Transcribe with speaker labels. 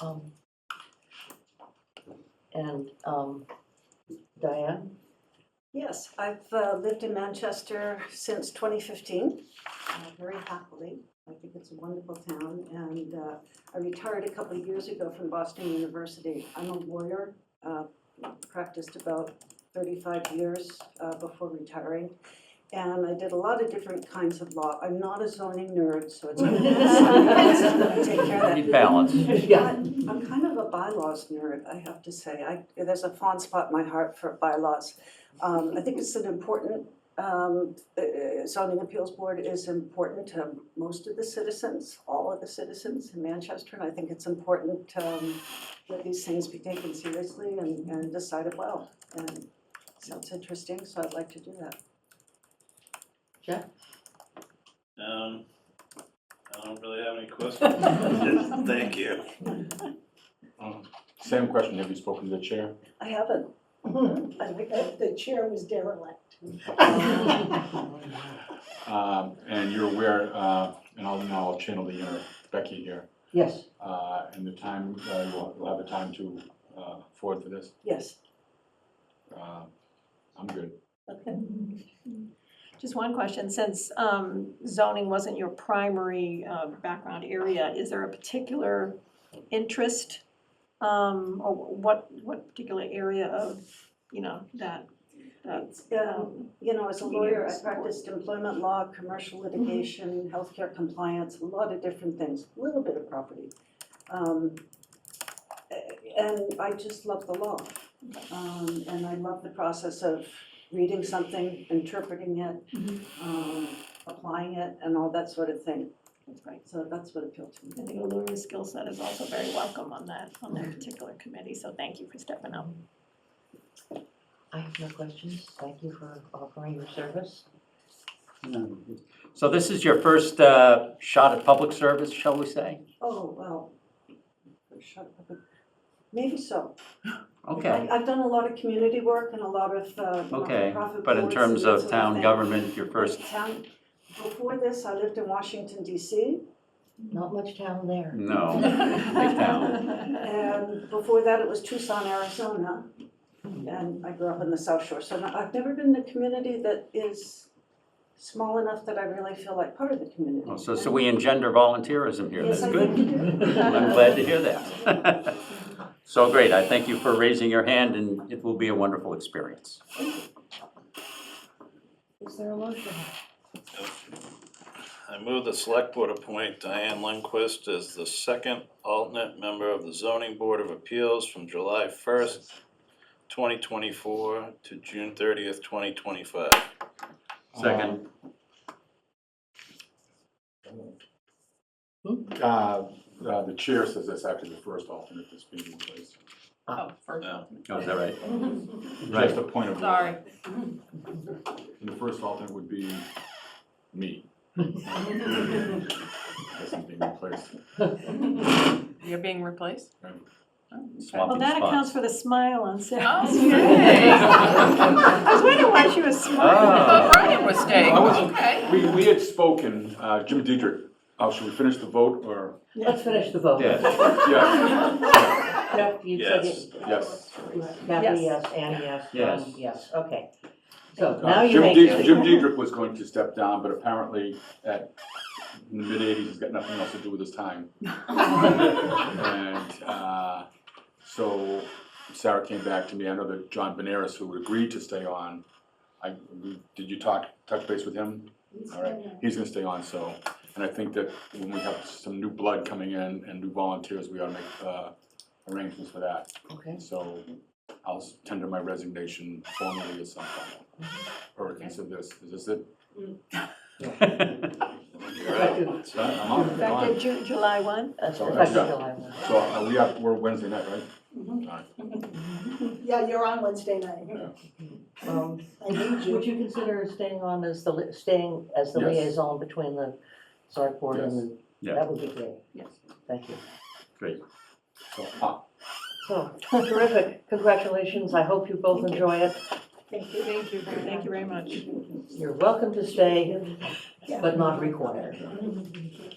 Speaker 1: Um, And um, Diane,
Speaker 2: Yes, I've uh, lived in Manchester since 2015, uh, very happily. I think it's a wonderful town, and uh, I retired a couple of years ago from Boston University. I'm a lawyer, uh, practiced about 35 years uh, before retiring, and I did a lot of different kinds of law. I'm not a zoning nerd, so it's. Take care of that.
Speaker 3: Need balance.
Speaker 1: yeah,
Speaker 2: I'm I'm kind of a bylaws nerd, I have to say. I, there's a fond spot in my heart for bylaws. Um, I think it's an important, um, uh, zoning appeals board is important to most of the citizens, all of the citizens in Manchester. And I think it's important, um, that these things be taken seriously and, and decided well. And it sounds interesting, so I'd like to do that.
Speaker 4: Um, I don't really have any questions. Thank you.
Speaker 5: Same question, have you spoken to the chair?
Speaker 2: I haven't, I like
Speaker 6: The
Speaker 2: that.
Speaker 6: the chair was derelict.
Speaker 5: Um, And you're aware, uh, and I'll now I'll channel the inner Becky here,
Speaker 1: yes,
Speaker 5: uh, and the time, uh, you'll you'll have a time to uh, forward for this.
Speaker 2: Yes,
Speaker 5: Uh, I'm good.
Speaker 2: okay.
Speaker 7: Just one question, since um, zoning wasn't your primary uh, background area, is there a particular interest? um, Or what, what particular area of, you know, that, that's,
Speaker 2: Yeah,
Speaker 7: um,
Speaker 2: You know, as a
Speaker 7: Media
Speaker 2: lawyer, I
Speaker 7: support.
Speaker 2: practiced employment law, commercial litigation, healthcare compliance, a lot of different things, a little bit of property. Um, a- And I just love the law. Um, And I love the process of reading something, interpreting it,
Speaker 7: Mhm.
Speaker 2: um, applying it, and all that sort of thing.
Speaker 7: that's great.
Speaker 2: So that's what appealed to me.
Speaker 7: I think a lawyer's skill set is also very welcome on that, on that particular committee, so thank you for stepping up.
Speaker 1: I have no questions, thank you for offering your service.
Speaker 3: So this is your first uh, shot at public service, shall we say?
Speaker 2: Oh, well, shut up. Maybe so.
Speaker 3: Okay,
Speaker 2: I- I've done a lot of community work and a lot of uh,
Speaker 3: okay.
Speaker 2: nonprofit
Speaker 3: But in
Speaker 2: boards
Speaker 3: terms
Speaker 2: and that sort
Speaker 3: of town
Speaker 2: thing.
Speaker 3: government, your first,
Speaker 2: Town- Before this, I lived in Washington DC,
Speaker 1: Not much town there.
Speaker 3: no, big town.
Speaker 2: and before that, it was Tucson, Arizona. And I grew up in the South Shore, so no- I've never been in a community that is small enough that I really feel like part of the community.
Speaker 3: Well, Oh, So, so we engender volunteerism here,
Speaker 2: Yes,
Speaker 3: that's
Speaker 2: I
Speaker 3: good.
Speaker 2: think you do.
Speaker 3: I'm glad to hear that. So great, I thank you for raising your hand, and it will be a wonderful experience.
Speaker 1: Is there a motion?
Speaker 4: I move the select board appoint Diane Lindquist as the second alternate member of the zoning board of appeals from July first, twenty twenty-four to June thirtieth, twenty twenty-five.
Speaker 3: Second.
Speaker 5: Um, uh, uh, The chair says that's actually the first alternate that's being replaced.
Speaker 7: Oh, first.
Speaker 4: No.
Speaker 3: Oh, is that right?
Speaker 5: Just
Speaker 3: Right,
Speaker 5: a point of. order.
Speaker 7: Sorry.
Speaker 5: And the first alternate would be me. As I'm being replaced.
Speaker 8: You're being replaced?
Speaker 7: Well,
Speaker 3: swapping
Speaker 7: that accounts
Speaker 3: spots.
Speaker 7: for the smile on Sarah's
Speaker 1: Oh,
Speaker 8: Okay.
Speaker 7: I was wondering why she was
Speaker 8: I
Speaker 3: Ah.
Speaker 7: smiling.
Speaker 8: thought Brian was staying,
Speaker 5: I wasn't-
Speaker 8: okay.
Speaker 5: We, we had spoken, uh, Jim Dietrich, oh, should we finish the vote or?
Speaker 1: Let's finish the vote.
Speaker 3: Yes,
Speaker 5: Yes,
Speaker 1: Jeff, you said
Speaker 4: Yes.
Speaker 1: it.
Speaker 5: yes.
Speaker 1: Kathy,
Speaker 7: Yes.
Speaker 1: yes, Annie, yes,
Speaker 3: Yes.
Speaker 1: Tom, yes, okay. So
Speaker 5: Uh,
Speaker 1: now you
Speaker 5: Jim
Speaker 1: make
Speaker 5: Dietrich-
Speaker 1: it.
Speaker 5: Jim Dietrich was going to step down, but apparently at, in the mid-eighties, he's got nothing else to do with his time. And, uh, so Sarah came back to me, I know that John Benares, who agreed to stay on, I, did you talk, touch base with him? All right, he's gonna stay on, so, and I think that when we have some new blood coming in and new volunteers, we ought to make, uh, arrangements for that.
Speaker 1: Okay,
Speaker 5: So I'll s- tender my resignation formally at some point. Or consider this, is this it?
Speaker 4: You're out.
Speaker 1: effective,
Speaker 5: Done? I'm out, I'm
Speaker 7: Effective
Speaker 5: gone.
Speaker 7: Ju- July one?
Speaker 1: that's
Speaker 5: All right,
Speaker 1: effective
Speaker 5: yeah.
Speaker 1: July one.
Speaker 5: So uh, we have, we're Wednesday night, right? All right.
Speaker 6: Yeah, you're on Wednesday night.
Speaker 1: Um,
Speaker 6: I need
Speaker 1: Would
Speaker 6: you.
Speaker 1: you consider staying on as the, li- staying as the
Speaker 5: Yes.
Speaker 1: liaison between the select board and the,
Speaker 3: Yes.
Speaker 1: that would be great.
Speaker 7: Yes.
Speaker 1: Thank you.
Speaker 5: So, ah,
Speaker 1: So, terrific, congratulations, I hope you both enjoy it.
Speaker 6: Thank you.
Speaker 7: Thank you. Thank you very much.
Speaker 1: You're welcome to stay,
Speaker 6: Yeah.
Speaker 1: but not required.